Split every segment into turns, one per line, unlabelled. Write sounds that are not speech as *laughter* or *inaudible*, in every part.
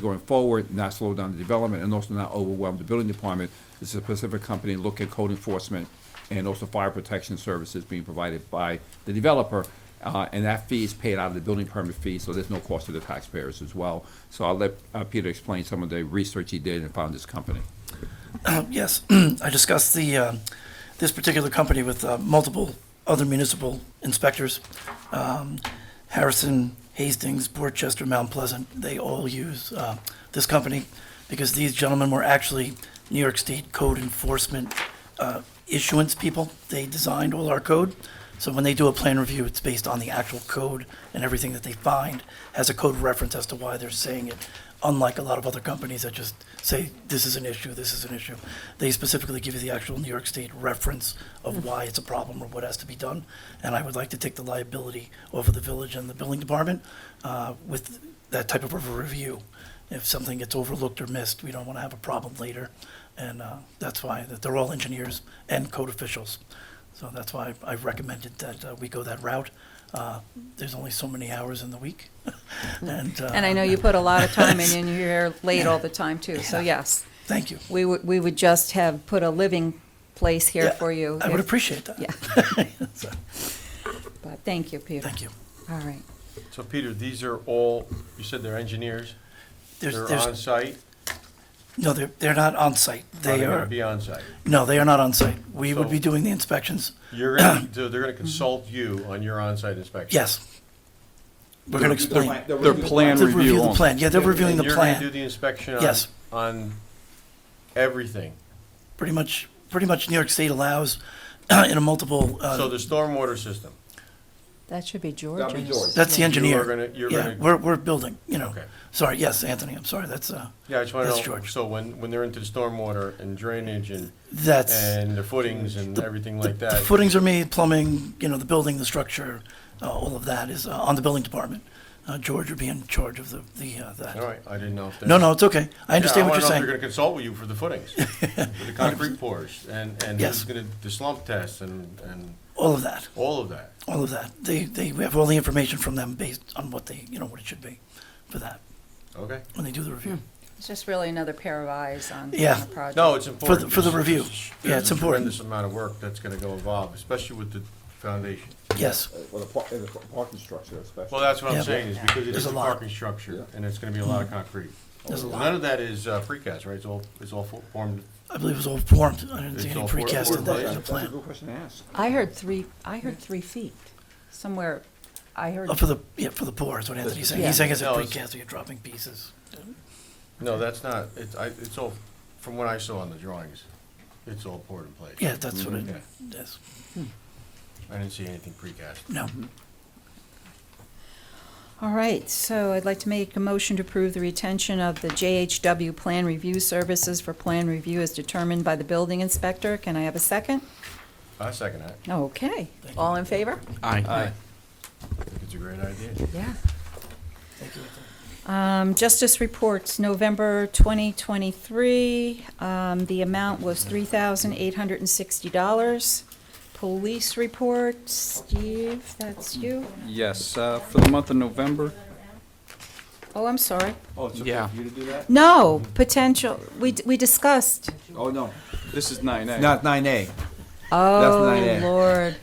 going forward, not slow down the development, and also not overwhelm the building department. It's a specific company, look at code enforcement and also fire protection services being provided by the developer. Uh, and that fee is paid out of the building permit fee, so there's no cost to the taxpayers as well. So I'll let, uh, Peter explain some of the research he did and found this company.
Um, Yes, *clears throat* I discussed the, uh, this particular company with uh, multiple other municipal inspectors. Um, Harrison, Hastings, Portchester, Mount Pleasant, they all use uh, this company because these gentlemen were actually New York State code enforcement uh, issuance people. They designed all our code. So when they do a plan review, it's based on the actual code and everything that they find has a code reference as to why they're saying it. Unlike a lot of other companies that just say, this is an issue, this is an issue. They specifically give you the actual New York State reference
Mm-hmm.
of why it's a problem or what has to be done. And I would like to take the liability off of the village and the building department uh, with that type of a review. If something gets overlooked or missed, we don't want to have a problem later. And uh, that's why, that they're all engineers and code officials. So that's why I recommended that uh, we go that route. Uh, There's only so many hours in the week. *laughs* And
Mm-hmm. And I
uh,
know you put a lot of time in, and you're here late all the time, too, so yes.
thank you.
We would, we would just have put a living place here
Yeah,
for you.
I would
if-
appreciate that.
Yeah,
*laughs* So,
but thank you, Peter.
Thank you.
All right.
So Peter, these are all, you said they're engineers,
There's,
they're
there's-
on-site?
No, they're, they're not on-site. They
They're
are,
gonna be on-site.
no, they are not on-site. We would be
So-
doing the inspections. *clears throat*
You're gonna, so they're gonna consult you on your on-site inspection?
Yes. We're going to explain.
Their plan
To
review
the
only.
plan. Yeah, they're reviewing
And
the
you're gonna do
plan.
the inspection on?
Yes.
On everything?
Pretty much, pretty much New York State allows *clears throat* in a multiple, uh,
So the stormwater system?
That should be
That'd be George.
George's.
that's the engineer.
gonna- you're
Yeah,
gonna-
we're, we're building, you know.
Okay.
Sorry, yes, Anthony, I'm sorry, that's, uh,
Yeah, I just wanna
That's
know,
George.
so when, when they're into the stormwater and drainage and,
that's.
and the footings and everything
The-
like
The
that?
footings are made, plumbing, you know, the building, the structure, uh, all of that is uh, on the building department. Uh, George would be in charge of the, the, uh,
All
that.
right, I didn't know if that.
No, no, it's okay. I understand what you're
I
saying.
want to know if they're going to consult with you for
*laughs*
the footings, for the concrete pours, and, and
Yes.
who's going to, the slump test, and, and
All of that,
all of that.
all of that. They, they, we have all the information from them based on what they, you know, what it should be for that,
Okay?
when they do the review.
It's just really another pair of eyes on on
Yeah.
the project.
No, it's
For
important.
the, for the
There's-
review. Yeah,
there's
it's
a
important.
Tremendous amount of work that's going to go involved, especially with the foundation.
Yes,
Well, the par- and the parking structure especially.
Well, that's what
Yeah.
I'm saying, is because it
There's
is
a
a
lot.
parking structure, and it's going to be a lot of concrete.
There's a lot.
None of that is uh, precast, right? It's all, it's all fo- formed,
I believe it was all formed. I didn't
It's
see any
all for-
precast
for
in that, in the
the-
That's a
plan.
good question to ask.
I heard three, I heard three feet somewhere. I heard,
Oh, for the, yeah, for the pour is what Anthony's saying.
Yeah.
He's saying it's a
No, it's-
precast, so you're dropping pieces.
no, that's not, it's, I, it's all, from what I saw on the drawings, it's all poured in place.
Yeah, that's what it
Yeah.
is.
I didn't see anything precast.
No,
all right, so I'd like to make a motion to approve the retention of the JHW Plan Review Services for plan review as determined by the building inspector. Can I have a second?
I second that.
Okay, all in favor?
Aye.
I think It's a great idea.
Yeah.
thank you. Anthony.
Um, Justice reports, November 2023, um, the amount was $3,860. Police report, Steve, that's you?
Yes, uh, for the month of November,
Oh, I'm sorry.
Oh, it's okay
Yeah.
for you to do that?
No, potential, we, we discussed.
Oh, no,
this is nine A.
not nine A. not
Oh,
it.
Lord.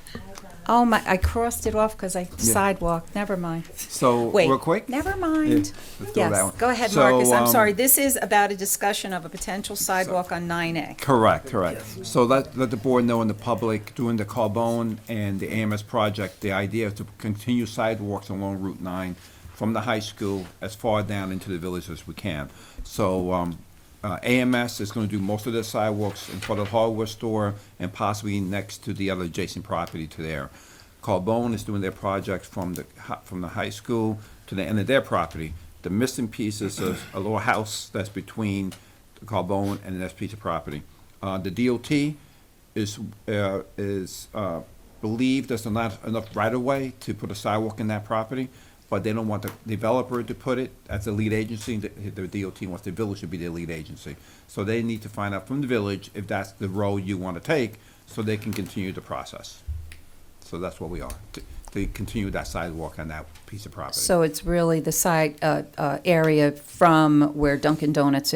Oh, my, I crossed it off because I sidewalk, never mind.
So,
Wait,
real quick?
never mind.
let's do that
Yes,
one.
go ahead,
So,
Marcus, I'm
um,
sorry. This is about a discussion of a potential sidewalk on 9A.
Correct, correct. So let, let the board know and the public, doing the Carbone and the AMS project, the idea is to continue sidewalks along Route nine from the high school as far down into the village as we can. So, um, uh, AMS is gonna do most of the sidewalks in front of the hardware store and possibly next to the other adjacent property to there. Carbone is doing their project from the, hi- from the high school to the end of their property. The missing piece is a, a little house that's between Carbone and the next piece of property. Uh, the DOT is, uh, is, uh, believed there's not enough right-of-way to put a sidewalk in that property, but they don't want the developer to put it as the lead agency, the, the DOT wants the village to be their lead agency. So they need to find out from the village if that's the road you wanna take, so they can continue the process. So that's where we are. T- they continue that sidewalk on that piece of property.
So it's really the side, uh, uh, area from where Dunkin' Donuts is.